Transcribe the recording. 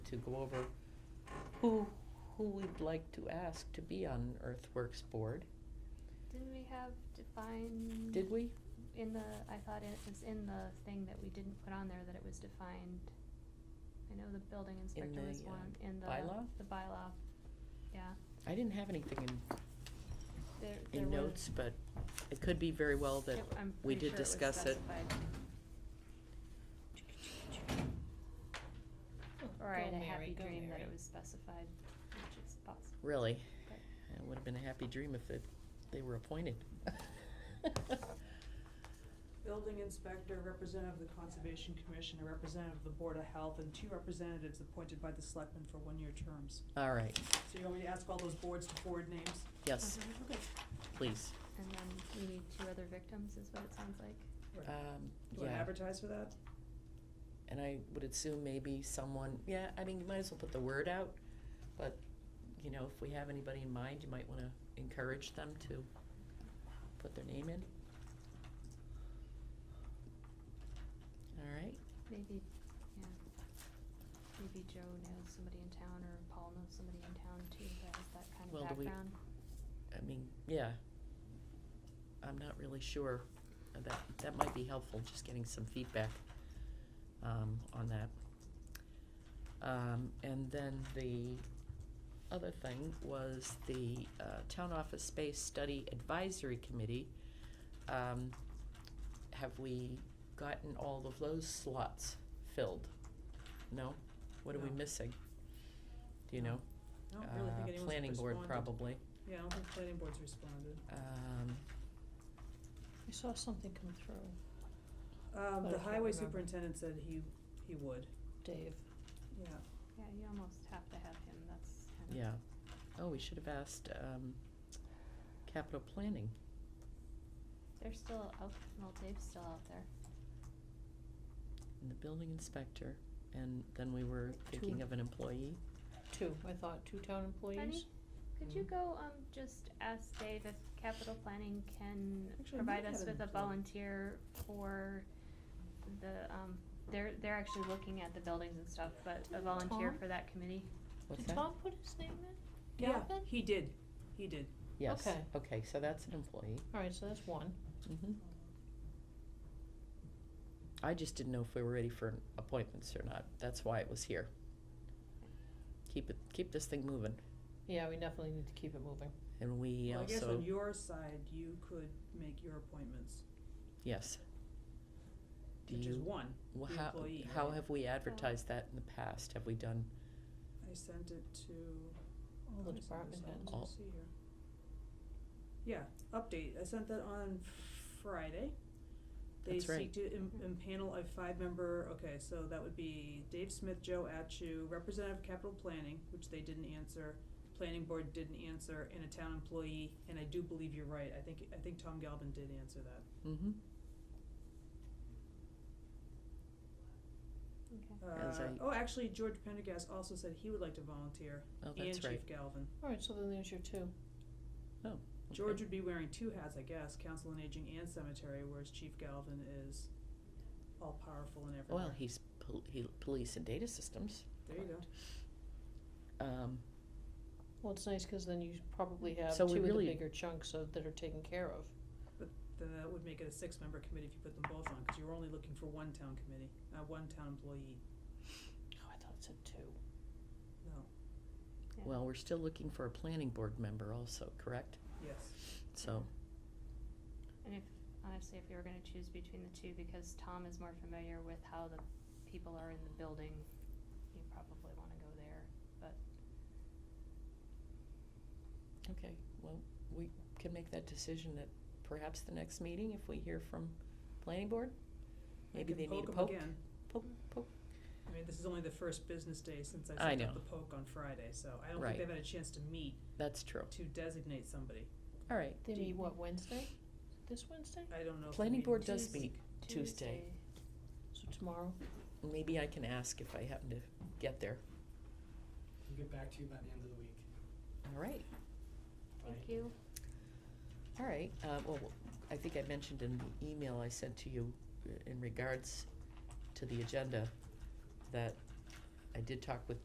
to go over who, who we'd like to ask to be on Earthworks Board. Didn't we have defined? Did we? In the, I thought it was in the thing that we didn't put on there that it was defined. I know the building inspector the, was um, one, in the. bylaw? The bylaw, yeah. I didn't have anything in, There, there in was- notes, but it could be very well that it- I'm we pretty did sure was discuss it. specified. Or I had a happy dream that it was specified, which is possible. Really? Right. It would have been a happy dream if it, they were appointed. Building inspector, representative of the Conservation Commission, a representative of the Board of Health, and two representatives appointed by the selectmen for one-year terms. All right, So you want me to ask all those boards to forward names? yes, Okay. Uh-huh. please. And then we need two other victims, is what it sounds like. Um, Do I yeah, advertise for that? and I would assume maybe someone, yeah, I mean, you might as well put the word out, but, you know, if we have anybody in mind, you might wanna encourage them to put their name in. All right, Maybe, yeah. Maybe Joe knows somebody in town or Paul knows somebody in town too that has that kind Well, of do we- background. I mean, yeah. I'm not really sure, that, that might be helpful, just getting some feedback, um, on that. Um, and then the other thing was the, uh, Town Office Space Study Advisory Committee. Um, have we gotten all of those slots filled? No? What are we No. missing? Do you No. know? I Uh, don't really think anyone's responded. Planning Board probably, Yeah, I don't think planning board's responded. um. I saw something come through, But Um, I the can't highway remember. superintendent said he, he would, Dave. yeah. Yeah, you almost have to have him, that's kind of. Yeah. Oh, we should have asked, um, capital planning. They're still out, well, Dave's still out there. And the building inspector, and then we were thinking Two. of an employee. Two, I thought, two town employees. Penny, could you Mm. Mhm. go, um, just ask Dave if capital planning can Actually, I provide might us have with him a plug. volunteer for the, um, they're, they're actually looking at the buildings and stuff, but a volunteer Tom? for that committee. What's Did that? Tom put his name in? Gavin? He did, he did. Yes, Okay. okay, so that's an employee. Alright, so that's one. Mhm. I just didn't know if we were ready for appointments or not. That's why it was here. Keep it, keep this thing moving. Yeah, we definitely need to keep it moving. And we Well, I guess on also, your side, you could make your appointments, yes. Do which is you, one, wh- the how, employee, how right? have we advertised that in the past? Have we done, I sent it to all The department heads. All- see here. Yeah, update, I sent that on Friday. They That's right. seek to im- Mm-hmm. impanel a five-member, okay, so that would be Dave Smith, Joe Atchu, representative of capital planning, which they didn't answer, planning board didn't answer, and a town employee, and I do believe you're right, I think, I think Tom Galvin did answer that. mm-hmm? Okay. As Uh, I- oh, actually, George Pendergast also said he would like to volunteer, Oh, and that's right. Chief Galvin. Alright, so then there's your two. Okay. George would be wearing two hats, I guess, council on aging and cemetery, whereas Chief Galvin is all powerful and everywhere. Well, he's pol- he, police and data systems. There you go. Um, Well, it's nice, cause then you probably have two So of we the really- bigger chunks of, that are taken care of. Then that would make it a six-member committee if you put them both on, because you were only looking for one town committee, not one town employee, Oh, I thought it said two. no, Yeah. well, we're still looking for a planning board member also, correct? yes. So, And if, honestly, if we were gonna choose between the two, because Tom is more familiar with how the people are in the building, you probably wanna go there. okay, well, we can make that decision at perhaps the next meeting if we hear from planning board? I Maybe can they need a 'em poke? again. Poke, poke. I mean, this is only the first business day since I I sent out know. the poke on Friday, so I don't Right. think they've had a chance to meet That's true. to designate somebody. All right, They Do meet you- what, Wednesday? This Wednesday? I don't know if. the planning meeting- board does Tuesday. meet. Tuesday. So tomorrow? Maybe I can ask if I happen to get there. We'll get back to you by the end of the week. All right, Thank you. all right. Uh, well, I think I mentioned in the email I sent to you uh, in regards to the agenda that I did talk with